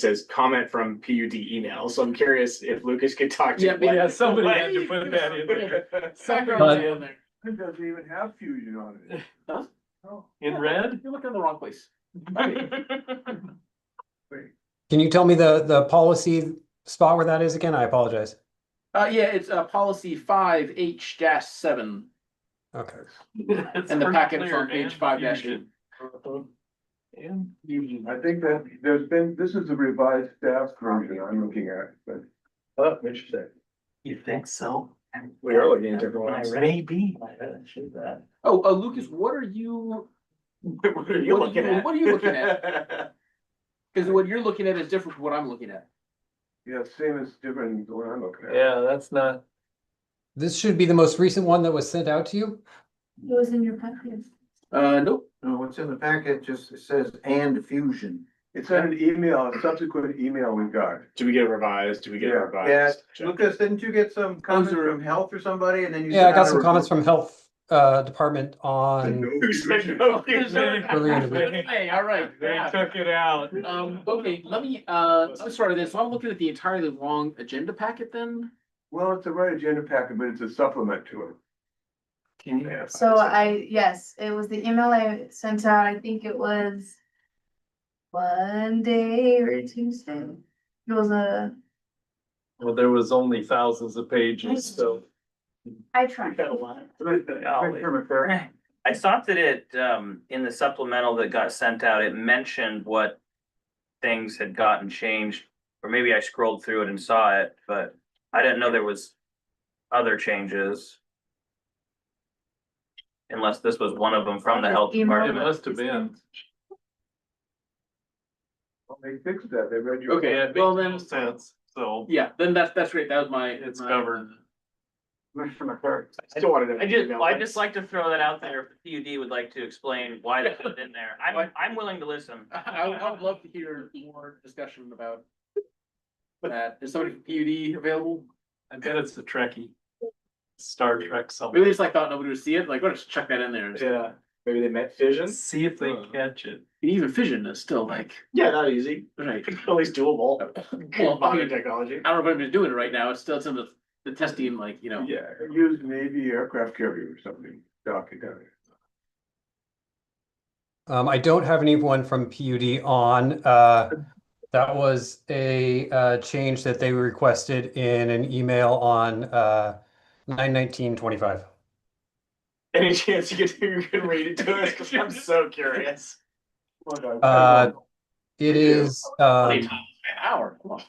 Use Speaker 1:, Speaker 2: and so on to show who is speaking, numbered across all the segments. Speaker 1: says comment from PUD email, so I'm curious if Lucas could talk to.
Speaker 2: Yeah,
Speaker 1: what-
Speaker 2: yeah, somebody
Speaker 1: what-
Speaker 2: had to put that in there.
Speaker 3: But-
Speaker 2: Somebody in there,
Speaker 4: It doesn't even have fusion on it.
Speaker 2: Huh?
Speaker 4: Oh,
Speaker 2: in red.
Speaker 3: You're looking in the wrong place.
Speaker 5: Can you tell me the, the policy spot where that is again? I apologize.
Speaker 3: Uh, yeah, it's, uh, policy five H dash seven,
Speaker 5: Okay.
Speaker 3: and the packet's on page five dash eight.
Speaker 2: And fusion.
Speaker 4: I think that there's been, this is a revised staff version I'm looking at, but.
Speaker 1: Oh, interesting.
Speaker 2: You think so?
Speaker 1: We are looking at different ones.
Speaker 2: Maybe.
Speaker 3: Oh, uh, Lucas, what are you,
Speaker 1: What are you
Speaker 3: What are
Speaker 1: looking
Speaker 3: you-
Speaker 1: at?
Speaker 3: what are you looking
Speaker 1: at?
Speaker 3: cause what you're looking at is different from what I'm looking at.
Speaker 4: Yeah, same as different than what I'm looking at.
Speaker 2: Yeah, that's not,
Speaker 5: This should be the most recent one that was sent out to you.
Speaker 6: It was in your packet.
Speaker 3: Uh, nope,
Speaker 7: No, what's in the packet just says and fusion.
Speaker 4: It's an email, a subsequent email we got.
Speaker 1: Do we get revised? Do we get
Speaker 4: Yeah,
Speaker 7: Yeah,
Speaker 1: revised? Check.
Speaker 7: Lucas, didn't you get some comments
Speaker 3: are-
Speaker 7: from health or somebody and then you?
Speaker 5: Yeah, I
Speaker 7: sent
Speaker 5: got
Speaker 7: out a
Speaker 5: some comments
Speaker 7: report?
Speaker 5: from health, uh, department on,
Speaker 1: Who said no?
Speaker 3: hey, all right.
Speaker 2: they took it out.
Speaker 3: Um, okay, let me, uh, I'm sorry, this, so I'm looking at the entirely wrong agenda packet then?
Speaker 4: Well, it's the right agenda packet, but it's a supplement to it.
Speaker 3: Okay.
Speaker 6: So I, yes, it was the email I sent out, I think it was. Monday or Tuesday, it was a,
Speaker 2: Well, there was only thousands of pages, so.
Speaker 6: I tried.
Speaker 8: I thought that it, um, in the supplemental that got sent out, it mentioned what things had gotten changed. Or maybe I scrolled through it and saw it, but I didn't know there was other changes. Unless this was one of them from the health
Speaker 6: Email.
Speaker 2: It
Speaker 8: department.
Speaker 2: must have been.
Speaker 4: Well, They fixed that, they read your.
Speaker 3: Okay,
Speaker 2: Yeah, it
Speaker 3: well
Speaker 2: makes
Speaker 3: then-
Speaker 2: no Sense, so
Speaker 3: Yeah, then that's, that's great, that was my.
Speaker 2: it's
Speaker 3: my-
Speaker 2: covered.
Speaker 1: I Still wanted to.
Speaker 8: I just, well, I'd just like to throw that out there. If PUD would like to explain why that's in there. I'm, I'm willing to listen.
Speaker 3: uh, I would, I would love to hear more discussion about. That, is somebody from PUD available?
Speaker 2: I bet it's the Trekkie. Star Trek
Speaker 3: Maybe
Speaker 2: something.
Speaker 3: they just like thought nobody would see it, like, let's check that in there. You
Speaker 1: Yeah, maybe they meant fission.
Speaker 2: See if they catch it.
Speaker 3: can Even fission is still like,
Speaker 1: Yeah, not easy.
Speaker 3: right,
Speaker 1: At least doable.
Speaker 9: Oh.
Speaker 3: Well,
Speaker 1: Modern technology.
Speaker 3: I don't know if anybody's doing it right now, it's still some of the testing, like, you know.
Speaker 4: Yeah, use Navy aircraft carrier or something, dock it down there.
Speaker 5: um, I don't have anyone from PUD on, uh, that was a, uh, change that they requested in an email on, uh, nine nineteen twenty-five.
Speaker 1: Any chance you could, you could read it to us? Cause I'm so curious.
Speaker 4: Look, I- I
Speaker 5: Uh,
Speaker 4: don't know.
Speaker 5: It is, um,
Speaker 3: An hour, come on.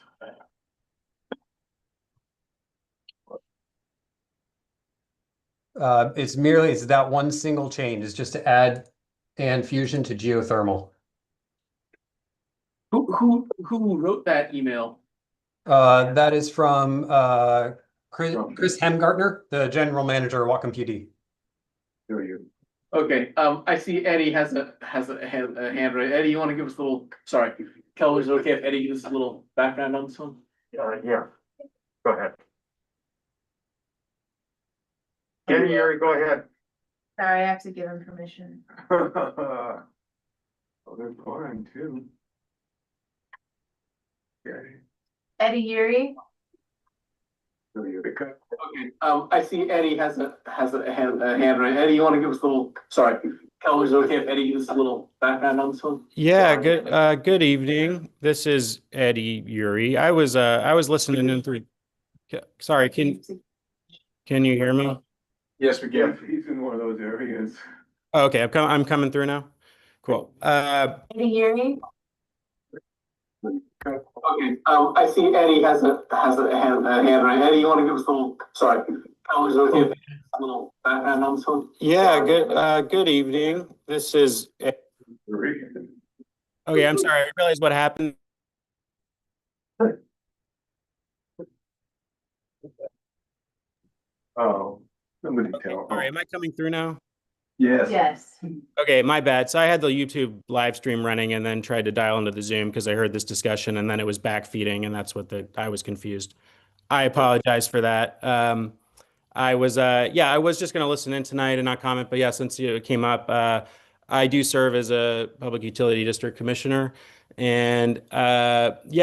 Speaker 5: uh, it's merely, it's that one single change is just to add and fusion to geothermal.
Speaker 3: Who, who, who wrote that email?
Speaker 5: Uh, that is from, uh, Chris,
Speaker 4: From-
Speaker 5: Chris Hemgartner, the general manager of Wacom PD.
Speaker 4: There you.
Speaker 3: Okay, um, I see Eddie has a, has a hand, a hand raised. Eddie, you wanna give us a little, sorry, Kelly, is it okay if Eddie gives us a little background on this one?
Speaker 4: Uh, yeah. Go ahead.
Speaker 6: Gary,
Speaker 4: Gary, go ahead.
Speaker 6: Sorry, I have to give him permission.
Speaker 4: Oh, they're fine too. Yeah,
Speaker 6: Eddie Yuri,
Speaker 4: so you cut
Speaker 3: Okay, um, I see Eddie has a, has a hand, a hand raised. Eddie, you wanna give us a little, sorry, Kelly, is it okay if Eddie gives us a little background on this one?
Speaker 9: Yeah,
Speaker 3: Sorry.
Speaker 9: good uh good evening. This is Eddie Uri. I was uh I was listening in through K- Sorry, can can you hear me?
Speaker 1: Yes, we
Speaker 4: yeah, he's in one of those areas.
Speaker 9: Okay, I'm com- I'm coming through now. Cool. Uh
Speaker 6: Eddie Yuri,
Speaker 3: Okay, um, I see Eddie has a, has a hand, a hand raised. Eddie, you wanna give us a little, sorry, Kelly, is it okay if Eddie gives us a little background on this one?
Speaker 9: yeah, good uh good evening. This is E- Okay, I'm sorry. I realized what happened.
Speaker 4: Oh, somebody tell.
Speaker 9: All right, am I coming through now?
Speaker 4: Yes,
Speaker 6: yes.
Speaker 9: Okay, my bad. So I had the YouTube live stream running and then tried to dial into the Zoom because I heard this discussion and then it was backfeeding and that's what the I was confused. I apologize for that. Um, I was uh, yeah, I was just gonna listen in tonight and not comment, but yeah, since it came up, uh, I do serve as a public utility district commissioner, and uh, yeah.